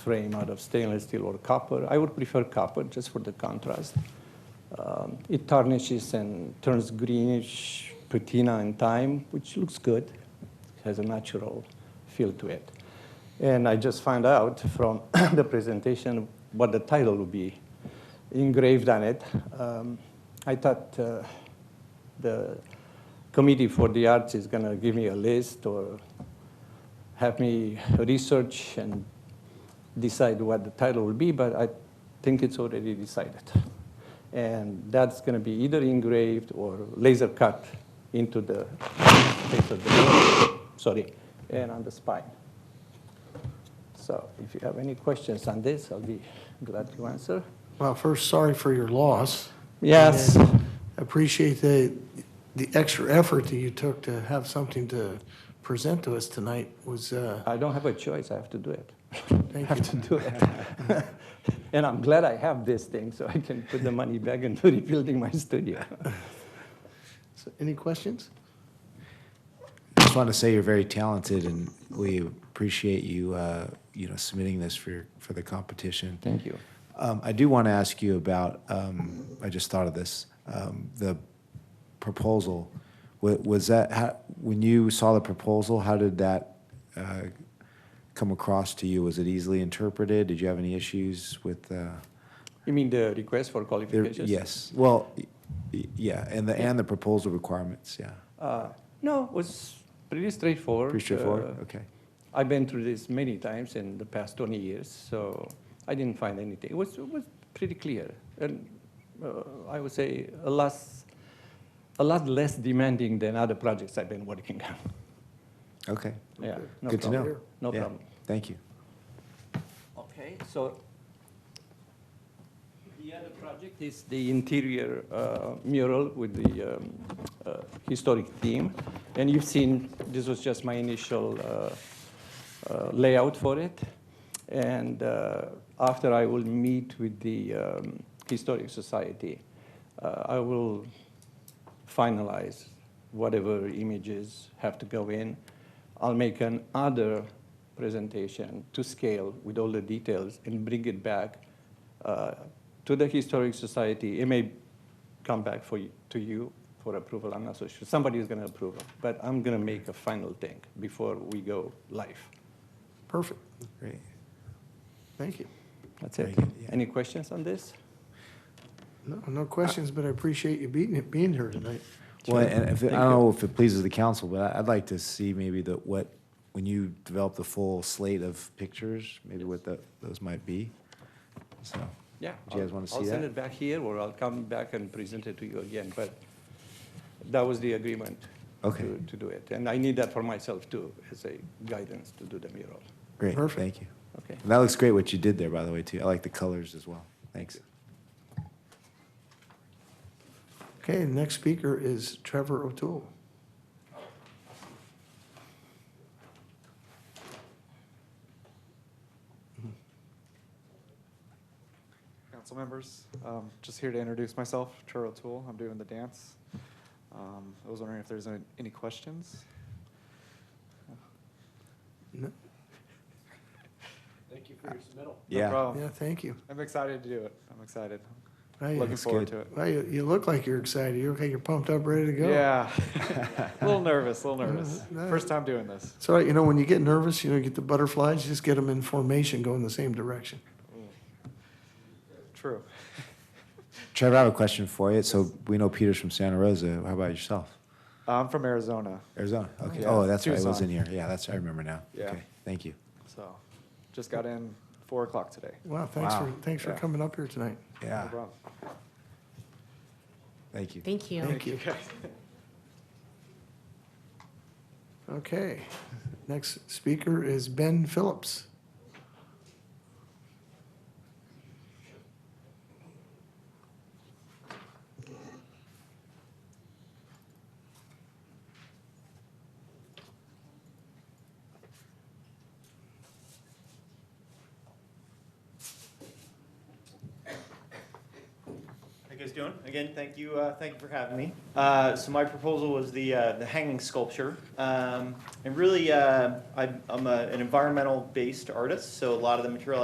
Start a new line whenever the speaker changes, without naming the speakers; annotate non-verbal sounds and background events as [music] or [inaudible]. frame out of stainless steel or copper. I would prefer copper just for the contrast. Um, it tarnishes and turns greenish patina in time, which looks good. It has a natural feel to it. And I just found out from [coughs] the presentation what the title would be engraved on it. Um, I thought uh, the committee for the arts is going to give me a list or have me research and decide what the title will be, but I think it's already decided. And that's going to be either engraved or laser cut into the face of the sorry, and on the spine. So if you have any questions on this, I'll be glad to answer.
Well, first, sorry for your loss.
Yes.
And Appreciate the, the extra effort that you took to have something to present to us tonight was, uh,
I don't have a choice. I have to do it. [laughs] I
thank
have to
you.
do it. [laughs] and I'm glad I have this thing so I can put the money back into rebuilding my studio.
So, Any questions?
just want to say you're very talented, and we appreciate you, uh, you know, submitting this for your, for the competition.
Thank you.
Um, I do want to ask you about. Um, I just thought of this. Um, the proposal was, was that how, when you saw the proposal? How did that uh, come across to you? Was it easily interpreted? Did you have any issues with? Uh,
You mean the request for
there,
qualifications?
yes. Well, y- y- yeah, and the and the proposal requirements. Yeah,
Uh, no, it was pretty straightforward.
pretty straightforward.
Uh,
okay.
I've been through this many times in the past 20 years, so I didn't find anything. It was, it was pretty clear. And uh, I would say a, less, a lot less demanding than other projects I've been working on.
Okay.
Yeah, no
Good to
problem.
know.
No
Yeah.
problem.
Thank you.
Okay, so the other project is the interior uh, mural with the um, uh, historic theme. And you've seen, this was just my initial uh, uh, layout for it. And uh, after I will meet with the um, Historic Society, uh, I will finalize whatever images have to go in. I'll make another presentation to scale with all the details and bring it back uh, to the Historic Society. It may come back for you, to you for approval. I'm not so sure. Somebody is going to approve it, but I'm going to make a final thing before we go live.
Perfect.
Great.
Thank you.
That's it.
Very good, yeah.
Any questions on this?
No, no questions, but I appreciate you being, being here tonight.
Well,
Sure.
and if, I
Thank
don't know if it pleases the council, but I- I'd like to see maybe the, what, when you develop the full slate of pictures, maybe what the, those might be. So,
Yeah.
Do you guys
I'll-
wanna
I'll
see
send
that?
it back here, or I'll come back and present it to you again, but that was the agreement.
Okay.
to- To do it, and I need that for myself too, as a guidance to do the mural.
great,
Perfect.
thank you.
Okay.
And that looks great what you did there, by the way, too. I like the colors as well. Thanks.
Okay, the next speaker is Trevor O'Toole.
Council members, um, just here to introduce myself, Trevor O'Toole. I'm doing the dance. Um, I was wondering if there's any- any questions?
No-
Yeah.
No problem.
Yeah, thank you.
I'm excited to do it. I'm excited.
Well,
Looking
you-
That's
forward
good.
to it.
well, you, you look like you're excited. You're okay, you're pumped up, ready to go. [laughs]
Yeah. [laughs] A little nervous, a little nervous.
No, no.
First time doing this.
So, you know, when you get nervous, you know, you get the butterflies, just get them in formation, go in the same direction.
True. [laughs]
Trevor, I have a question for you. So we know Peter's from Santa Rosa. How about yourself?
I'm from Arizona,
Arizona? Okay.
Yeah,
Oh, that's right. I was
Tucson.
in here. Yeah, that's, I remember now.
Yeah.
Okay, Thank you.
so just got in four o'clock today.
Wow, thanks for,
Wow.
thanks for
Yeah.
coming up here tonight.
No
Yeah,
problem.
thank you.
Thank you.
Thank you. Okay, next speaker is Ben Phillips.
How you guys doing? Again, thank you, uh, thank you for having me. Uh, so my proposal was the, uh, the hanging sculpture. Um, and really, uh, I'm, I'm a, an environmental-based artist, so a lot of the material